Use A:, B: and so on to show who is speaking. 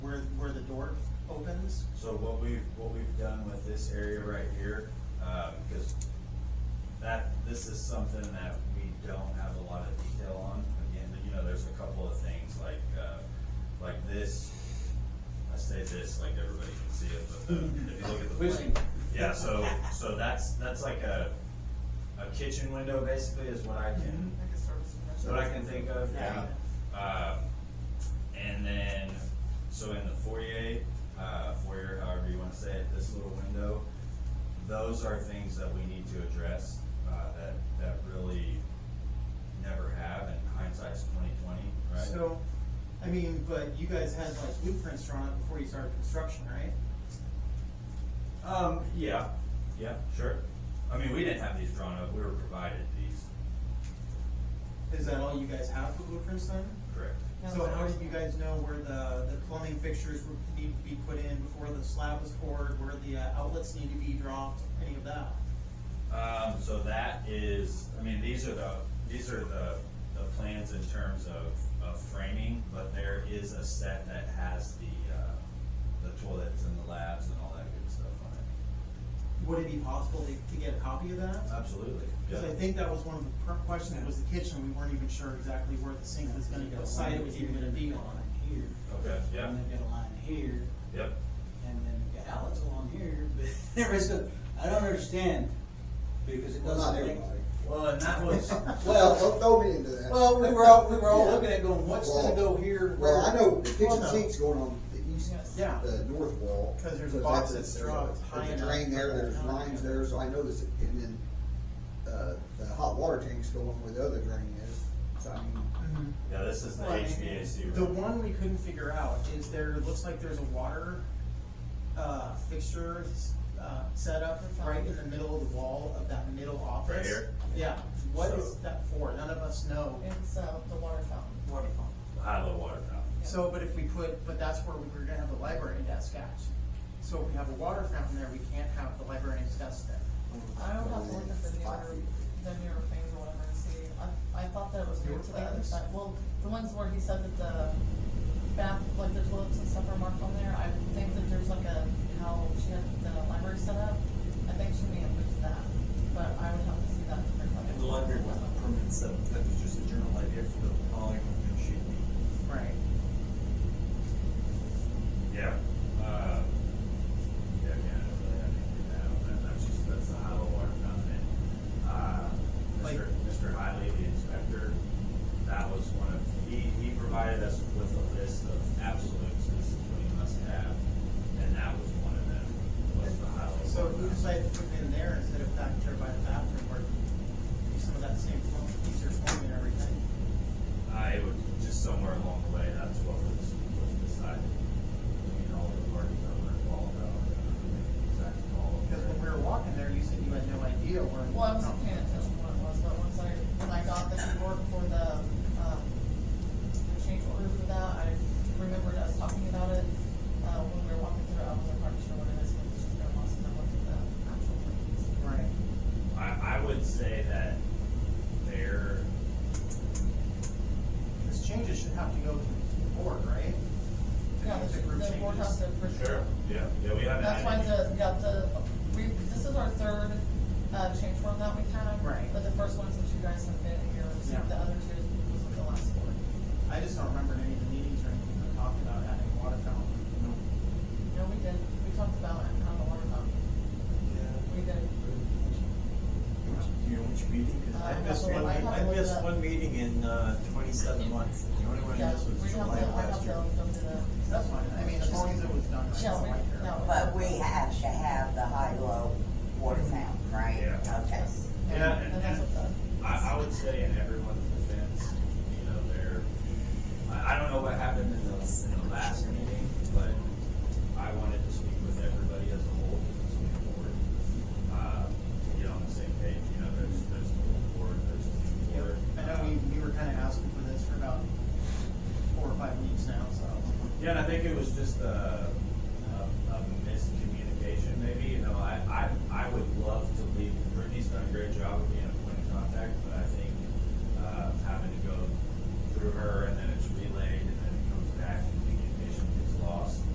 A: is, so what we've, what we've done with this area right here, uh, because that, this is something that we don't have a lot of detail on. Again, you know, there's a couple of things like, uh, like this, I say this like everybody can see it, but the- if you look at the
B: Vision.
A: plane. Yeah, so, so that's, that's like a, a kitchen window basically is what I can,
C: Like a service
A: is
C: professional.
A: what I can think of, yeah.
B: Yeah.
A: Uh, and then, so in the foyer, uh, foyer, however you wanna say it, this little window, those are things that we need to address, uh, that, that really never have, and hindsight's twenty twenty, right?
B: So, I mean, but you guys had like blueprints drawn up before you started construction, right?
A: Um, yeah, yeah, sure. I mean, we didn't have these drawn up, we were provided these,
B: Is that all you guys have for blueprints then?
A: correct?
C: No,
B: So
C: it's
B: how
C: not.
B: did you guys know where the, the plumbing fixtures would need to be put in before the slab was poured, where the uh, outlets need to be dropped, any of that?
A: Um, so that is, I mean, these are the, these are the, the plans in terms of, of framing, but there is a set that has the, uh, the toilets and the labs and all that good stuff on it.
B: Would it be possible to, to get a copy of
A: Uh,
B: that?
A: Absolutely.
B: Because I think that was one of the per- questions, was the kitchen, we weren't even sure exactly where the sink was gonna go, site it was even gonna be on.
D: Here.
A: Okay, yeah,
D: And they've got a line here,
A: yep.
D: and then they've got outlets along here, but there is a, I don't understand, because it
E: Well, not
D: doesn't make.
E: everybody.
A: Well, and that was,
E: Well, don't throw me into that.
D: Well, we were all, we were all
E: Yeah.
D: looking at going, what's gonna go
E: Well,
D: here?
E: Well, I know the
B: Well,
E: kitchen
B: no.
E: sink's going on the east,
C: Yes.
B: Yeah.
E: the north wall.
B: 'Cause there's a
E: So
B: box
E: that's a-
B: that's drawn
E: there's a-
B: high
E: There's a
B: enough
E: drain there,
B: for the
E: there's
B: town.
E: lines there, so I know this, and then, uh, the hot water tank's going where the other drain is, so I mean,
B: Mm-hmm.
A: yeah, this is the
B: Well,
A: HVAC room.
B: The one we couldn't figure out is there, looks like there's a water, uh, fixture, uh, set up right in the middle of the wall of that middle office.
A: Right here?
B: Yeah, what
A: So-
B: is that for? None of us know.
C: It's, uh, the water fountain.
B: Water pump.
A: High low water fountain.
B: So, but if we put, but that's where we were gonna have the library desk at. So if we have a water fountain there, we can't have the librarian's desk there.
C: I don't have to look at the
E: Five
C: newer,
E: feet.
C: the newer things or whatever and see, I, I thought that it was
B: Newer
C: moved to the other
B: plans?
C: side, well, the ones where he said that the bath, like the toilets and stuff are marked on there, I think that there's like a, how she had the library set up, I think she may have moved that, but I would have to see that. to figure out.
F: And the library was not permanent set up, that was just a general idea for the following one sheet.
B: Right.
A: Yeah. Uh, yeah, yeah, I really have anything to add on that, that's just, that's the high low water fountain. And, Uh,
B: Like-
A: Mr. Mr. Hiley, the inspector, that was one of, he, he provided us with a list of absolutes this we must have, and that was one of them, was the high low.
B: So
A: water
B: who
A: fountain.
B: decided to put it in there instead of back there by the bathroom where some of that same form, easier form and everything?
A: I would, just somewhere along the way, that's what was, was decided. You know, the parties that were involved, I don't remember the exact call.
B: Because when we were walking there, you said you had no idea where.
C: Well, I wasn't paying attention what it was, but once I, when I got the report for the, um, the change order for that, I remembered us talking about it, uh, when we were walking through, I wasn't quite sure what it is, but it's just got lost and I looked at the actual plans.
B: Right.
A: I, I would say that there,
B: Because changes should have to go to the board, right? To
C: Yeah,
B: make
C: the,
B: group
C: the board has
B: changes.
C: to approve.
A: Sure, yeah, yeah, we haven't
C: That's why
A: had any.
C: the, yeah, the, we, this is our third, uh, change form that we had.
B: Right.
C: But the first ones that you guys have been here, so
B: Yeah.
C: the other two was with the last board.
B: I just don't remember any of the meetings or anything that talked about adding a water fountain.
C: No, we did, we talked about it on the water fountain, we did.
F: Do you know which meeting? 'Cause
C: Uh,
F: I missed
C: I
F: one,
C: have
F: I
C: to look
F: missed
C: up.
F: one meeting in, uh, twenty-seven months, the only one I
C: Yeah,
F: missed
C: we
F: was
C: have
F: July
C: to,
F: of
C: I have
F: last
C: to
F: year.
C: look it up.
B: That's fine, I mean, as long as it was done right,
C: Yeah,
B: so
C: we-
B: I care.
C: no.
G: But we have to have the high-low water fountain, right?
A: Yeah.
G: Okay.
A: Yeah, and,
C: And
A: and
C: that's what the.
A: I, I would say in everyone's defense, you know, there, I, I don't know what happened in the, in the last meeting, but I wanted to speak with everybody as a whole, as a board. Uh, to get on the same page, you know, there's, there's the whole board, there's the board.
B: I know we, we were kind of asking for this for about four or five weeks now, so.
A: Yeah, and I think it was just a, a, a miscommunication, maybe, you know, I, I, I would love to leave, Brittany's done a great job of being a point of contact, but I think, uh, having to go through her and then